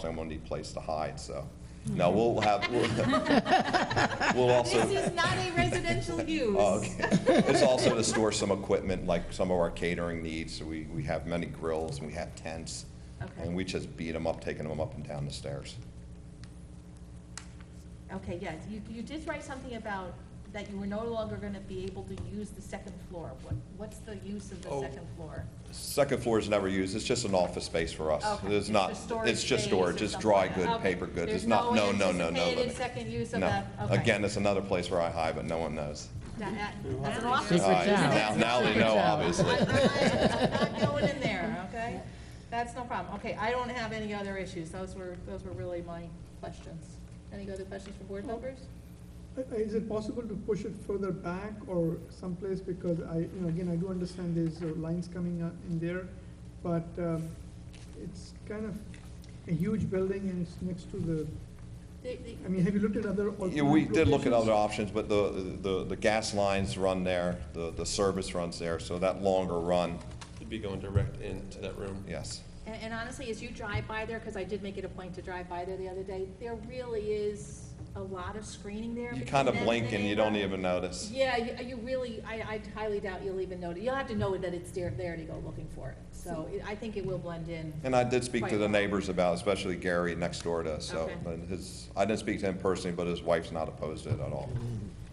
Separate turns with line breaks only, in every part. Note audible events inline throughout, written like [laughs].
someone need a place to hide, so. No, we'll have, we'll we'll [laughs]
This
also,
is not a
[laughs]
residential use.
oh, okay. It's also to store some equipment, like some of our catering needs. So We, we have many grills and we have tents.
Okay.
And we just beat them up, taking them up and down the stairs.
Okay, yes, you, you did write something about that you were no longer gonna be able to use the second floor. What, what's the use of the
Oh.
second floor?
Second floor is never used, it's just an office space for us.
Okay,
It's not,
just storage
it's just
space or
storage, it's
something
dry
like
good,
that. Okay.
paper goods,
There's
it's not, no, no, no, no.
anticipated
limit.
second use of
No.
that, okay.
Again, it's another place where I hide, but no one knows.
That- that- That's an
Secret
All right,
office.
job.
Now, now they know, obviously.
I'm not- I'm not going in there, okay? That's no problem. Okay, I don't have any other issues. Those were, those were really my questions. Any other questions for board members?
Uh, Is it possible to push it further back or someplace, because I, you know, again, I do understand there's uh, lines coming up in there, but um, it's kind of a huge building and it's next to the,
The- the-
I mean, have you looked at other
Yeah, we
alternative
did look at other options,
locations?
but the, the, the gas lines run there, the, the service runs there, so that longer run,
You'd be going direct into that room.
yes.
And, and honestly, as you drive by there, because I did make it a point to drive by there the other day, there really is a lot of screening there.
You
between
kind of
them
blink
the
and you don't
neighbor.
even notice.
Yeah, you, you really, I, I highly doubt you'll even notice. You'll have to know that it's there, there to go looking for it. So it- I think it will blend in.
And I did speak to
Quite
the
well.
neighbors about, especially Gary next door to us, so,
Okay.
but his, I didn't speak to him personally, but his wife's not opposed to it at all.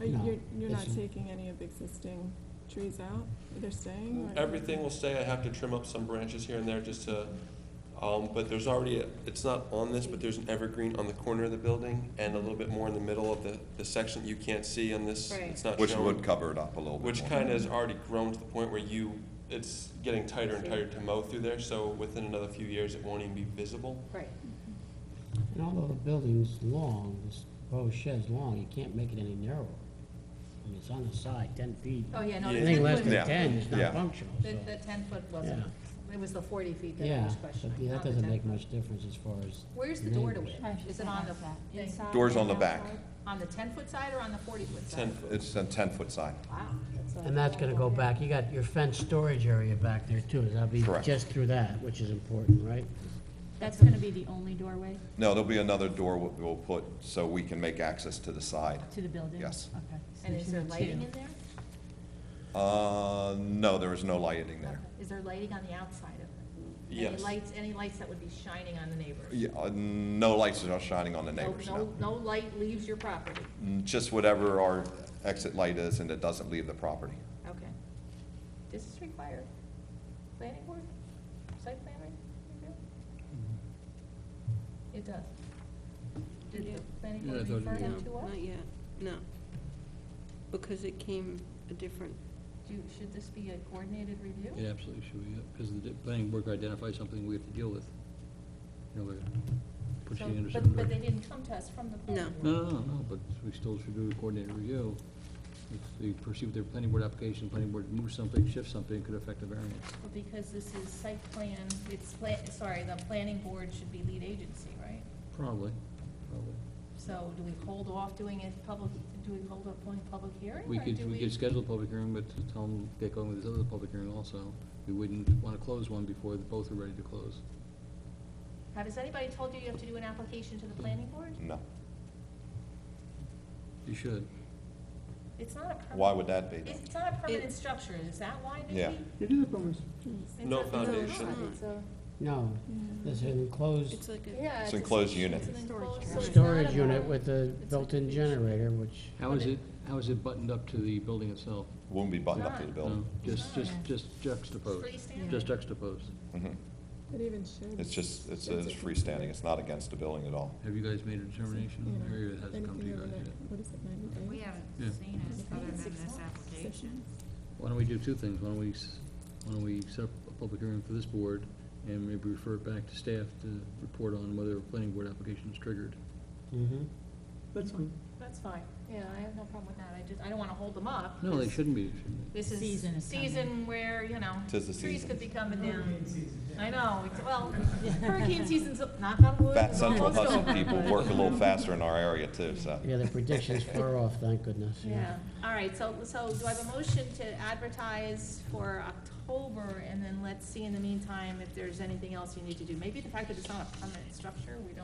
Are you-
No,
You're, you're not
it's-
taking any of the existing trees out? They're staying?
Mm-hmm.
or-
Everything will stay, I have to trim up some branches here and there just to, um, but there's already, a- it's not on this, but there's an evergreen on the corner of the building and a little bit more in the middle of the, the section that you can't see on this.
Right.
It's not
Which
shown.
would cover it up a little bit
Which
more.
kind of has already grown to the point where you, it's getting tighter and tighter to mow through there, so within another few years, it won't even be visible.
Right.
And although the building's long, this row of shed's long, you can't make it any narrower. I mean, it's on the side, ten feet.
Oh, yeah, no. the
Anything
10
less
foot-
than
Yeah,
ten is
yeah.
not functional,
The,
so,
the ten foot wasn't, it was the forty feet that I
yeah,
was
but
questioning.
yeah,
not
that
the
doesn't
10
make
foot.
much difference as far as.
Where's the door to
neighbors.
it? Is it on the, thing?
Doors on the back,
on the ten foot side or on the forty foot side?
Ten foot.
it's a ten-foot side.
Wow. that's a-
And that's gonna go back, you got your fenced storage area back there too, that'll be
Correct.
just through that, which is important, right?
That's gonna be the only doorway
No, there'll be another door we'll, we'll put, so we can make access to the side.
to the building?
Yes.
Okay.
And is there lighting in there?
Uh, no, there is no lighting there.
Is there lighting on the outside of it? Any
Yes.
lights, any lights that would be shining on the neighbors?
Yeah, uh, no lights are shining on the neighbors, no. Mm,
No light leaves your property,
Just whatever our exit light is and it doesn't leave the property.
okay. This is required. Planning board, site planner, review? It does. Did the planning board refer
No,
that to us?
not yet, no. Because it came a different,
Do, should this be a coordinated review?
Yeah.
It absolutely should be, because the planning board could identify something we have to deal with. You know, we're
So-
proceeding under
but-
certain.
But they
direct-
didn't come to us from the planning
No.
board.
No, no, no, no, but we still should do a coordinated review. If they pursue their planning board application, planning board moves something, shifts something, it could affect the variance.
Well, Because this is site plan, it's pla, sorry, the planning board should be lead agency, right?
Probably, probably.
So do we hold off doing it public, do we hold off doing public hearing?
We
or do
could, we could schedule a public hearing, but to tell them, get going with this other public hearing also. We wouldn't want to close one before both are ready to close.
Has anybody told you you have to do an application to the planning board?
No.
You should.
It's not a permanent.
Why would that be? though?
It's not a permanent
It-
structure, is that why, Nikki?
Yeah.
It is a promise.
It's
No
not- it's
foundation.
not, it's a-
No, there's an enclosed
it's like a.
Oh, Yeah.
It's enclosed unit.
It's an enclosed, so it's
storage
not
unit
about-
with a
like
built-in
a-
generator, which,
How is it, how is it buttoned up to the building itself?
Wouldn't be buttoned up to the
Not.
building.
No, Just, just, just juxtaposed,
Freestanding?
just juxtaposed.
Mhm.
It even should.
It's just, it's it's freestanding, it's not against the building at all.
Have you guys made a determination,
Yeah.
or has it come to
Anything
you
over
guys
that-
yet?
What is it, ninety days?
We haven't
Yeah.
seen it other than
Six
this
months,
application.
Why don't we do two things, why don't we, s- why don't we set up a public hearing for this board, and maybe refer it back to staff to report on whether a planning board application is triggered?
mm-hmm.
that's fine.
That's fine. Yeah, I have no problem with that. I just, I don't wanna hold them up.
No, they
'cause
shouldn't be, shouldn't they?
This is
Season is coming.
season where, you know,
Tis the
trees
season.
could be coming down. I know, it's- well, hurricane season's, knock on wood.
Fat
it's
Central
almost
Hudson
over,
people
but-
work a little faster in our area too, so.
Yeah, the prediction's far off, thank goodness.
Yeah, all right, so, so do I have a motion to advertise for October, and then let's see in the meantime if there's anything else you need to do? Maybe the fact that it's not a permanent structure, we don't